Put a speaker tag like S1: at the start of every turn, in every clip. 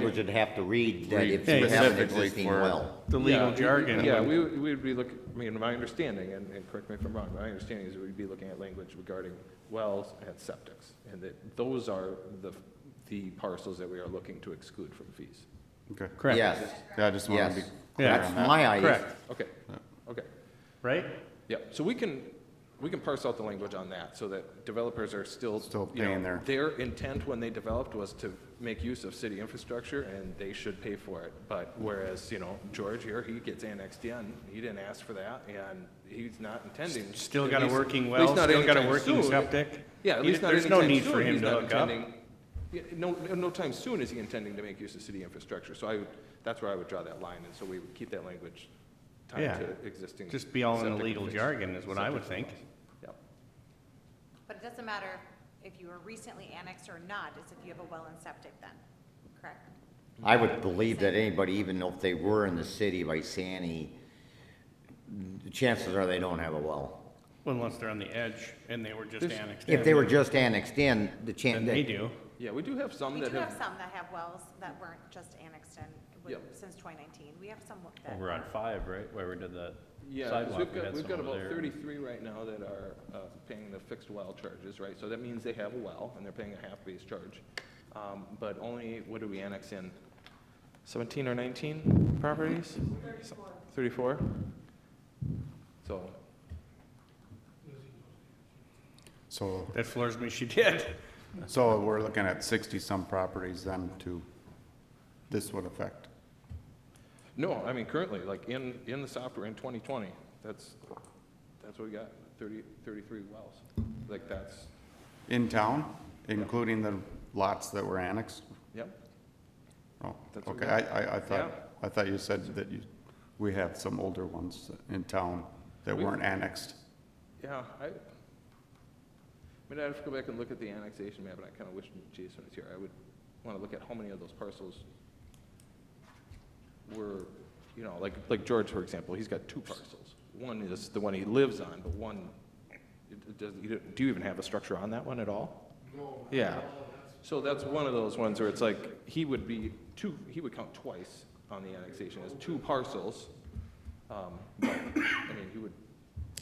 S1: Language would have to read that if
S2: Read
S1: you have an
S2: specifically
S1: existing
S2: for-
S1: well.
S3: the legal
S4: Yeah,
S3: jargon.
S4: Yeah,
S3: would-
S4: we would, we would be looking, I mean, my understanding, and, and correct me if I'm wrong, my understanding is we'd be looking at language regarding wells and septics, and that those are the, the parcels that we are looking to exclude from fees.
S2: Okay.
S3: Correct.
S1: Yes,
S2: Yeah, I just want to
S1: yes.
S2: be clear
S3: Yeah.
S2: on
S1: That's
S2: that.
S1: my idea.
S3: Correct,
S4: Okay, okay.
S3: right?
S4: Yeah, so we can, we can parse out the language on that, so that developers are still.
S2: Still
S4: you know,
S2: paying their-
S4: Their intent when they developed was to make use of city infrastructure, and they should pay for it. But whereas, you know, George here, he gets annexed in, he didn't ask for that, and he's not intending.
S3: Still
S4: at
S3: got a
S4: least-
S3: working
S4: at
S3: well,
S4: least not
S3: still got a
S4: anytime
S3: working
S4: soon.
S3: septic.
S4: Yeah, at
S3: He-
S4: least not
S3: There's no
S4: anytime
S3: need for
S4: soon,
S3: him
S4: he's
S3: to
S4: not
S3: hook up.
S4: intending, yeah, no, no time soon is he intending to make use of city infrastructure, so I, would that's where I would draw that line, and so we would keep that language
S3: Yeah.
S4: tied to existing.
S3: Just be all in the
S4: septic
S3: legal
S4: infrastructure.
S3: jargon is what I would think.
S4: Yep.
S5: But it doesn't matter if you were recently annexed or not, it's if you have a well and septic then, correct?
S1: I would believe that anybody, even if they were in the city of Isani, the chances are they don't have a well.
S3: Well, Unless they're on the edge and they were just
S4: There's-
S3: annexed.
S1: If
S3: in,
S1: they were just annexed in, the chance.
S3: Then they do.
S4: Yeah, we do have some
S5: We
S4: that
S5: do have
S4: have,
S5: some that have wells that weren't just annexed in with-
S4: Yep.
S5: since 2019. We have some
S3: Oh,
S5: that.
S6: Over on five, right, where we did the
S4: yeah, 'cause
S6: sidewalk,
S4: we've
S6: we
S4: got,
S6: had
S4: we've
S6: some
S4: got
S6: over
S4: about
S6: there.
S4: thirty-three right now that are, uh, paying the fixed well charges, right? So that means they have a well, and they're paying a half base charge. Um, but only, what do we annex in? Seventeen or nineteen properties? Thirty-four. Thirty-four? So,
S2: So,
S3: That floors me, she did.
S2: so we're looking at sixty-some properties then to, this would affect.
S4: no, I mean, currently, like, in, in the software in twenty twenty, that's, that's what we got, thirty, thirty-three wells. Like, that's,
S2: In town, including the lots that were annexed?
S4: yep.
S2: Oh,
S4: That's
S2: okay,
S4: okay.
S2: I, I, I thought,
S4: Yeah.
S2: I thought you said that you, we have some older ones in town that
S4: We-
S2: weren't annexed.
S4: Yeah, I, I mean, I'd have to go back and look at the annexation map, and I kind of wish Jason was here. I would want to look at how many of those parcels were, you know, like, like George, for example, he's got two parcels. One is the one he lives on, but one, it it doesn't, you don't- do you even have a structure on that one at all? No. Yeah. So that's one of those ones where it's like, he would be two, he would count twice on the annexation as two parcels. Um, But, I mean, he would,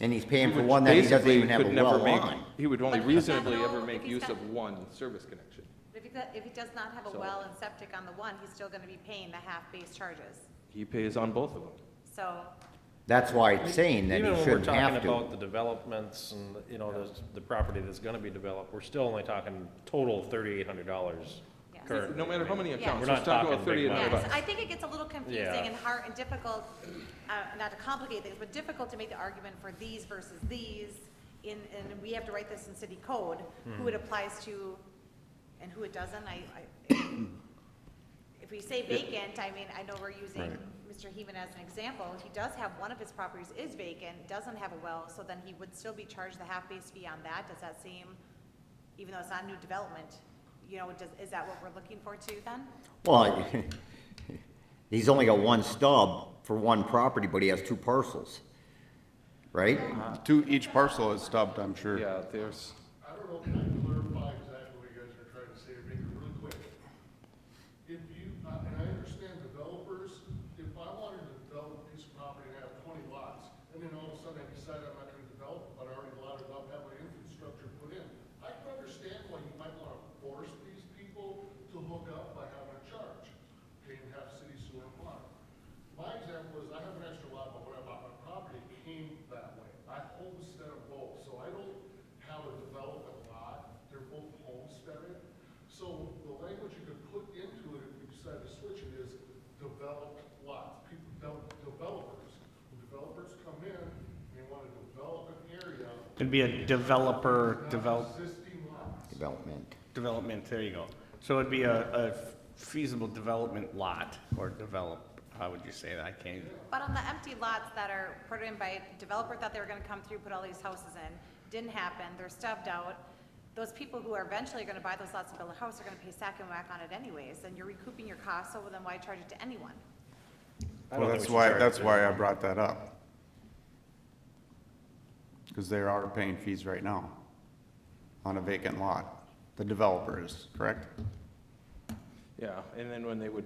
S1: And he's paying
S4: he
S1: for
S4: would
S1: one that he doesn't
S4: basically
S1: even have a
S4: could never
S1: well
S4: make-
S1: on.
S4: He would only
S5: But if he's
S4: reasonably
S5: got an
S4: ever
S5: old- if
S4: make
S5: he's
S4: use
S5: got-
S4: of one service connection.
S5: But If he, do- if he does not have a
S4: So-
S5: well and septic on the one, he's still going to be paying the half-base charges.
S4: He pays on both of them.
S5: So
S1: That's why it's saying that he shouldn't have
S6: Even when we're talking about
S1: to.
S6: the developments and, you know, the, the property that's gonna be developed, we're still only talking total thirty-eight hundred dollars
S5: Yes.
S6: currently.
S4: No matter how many
S5: Yeah.
S4: accounts,
S6: We're
S4: let's
S6: not
S4: talk about
S6: talking big
S4: thirty-eight
S6: money.
S4: hundred
S5: Yes,
S4: bucks.
S5: I think it gets a little confusing
S6: Yeah.
S5: and hard and difficult, uh, not to complicate things, but difficult to make the argument for these versus these. In, and we have to write this in city code, who it applies to and who it doesn't. I, I, if we say vacant, I mean, I know we're using Mr. Heeman as an example. He does have, one of his properties is vacant, doesn't have a well, so then he would still be charged the half-base fee on that. Does that seem, even though it's not new development, you know, does, is that what we're looking for too then?
S1: Well, he's only got one stub for one property, but he has two parcels, right?
S2: To each parcel is stubbed, I'm sure.
S4: Yeah, there's,
S7: I don't know if I can clarify exactly what you guys are trying to say, or make it really quick. If you, I- and I understand developers, if I wanted to develop a piece of property and I have twenty lots, and then all of a sudden I decide I'm not gonna develop, it, but I already lotted up, have my infrastructure put in, I can understand why you might wanna force these people to hook up by having a charge, paying half city sewer and water. My example is I have an extra lot, but when I bought my property, it came that way. I homestead them both, so I don't have a development lot, they're both homesteaded. So the language you could put into it if you decide to switch it is developed lots, people, develop- developers. When Developers come in, and they want to develop an area,
S3: It'd be a developer, develop,
S7: existing lots.
S1: Development.
S3: development, there you go. So it'd be a, a feasible development lot or develop, how would you say that? I can't,
S5: But on the empty lots that are put in by developer thought they were gonna come through, put all these houses in, didn't happen, they're stubbed out. Those people who are eventually gonna buy those lots and build a house are gonna pay sack and whack on it anyways, and you're recouping your costs, so then why charge it to anyone?
S6: I don't
S2: Well, that's
S6: think we should
S2: why,
S6: charge
S2: that's
S6: it.
S2: why I brought that up. Because they are paying fees right now on a vacant lot, the developer is, correct?
S4: Yeah, and then when they would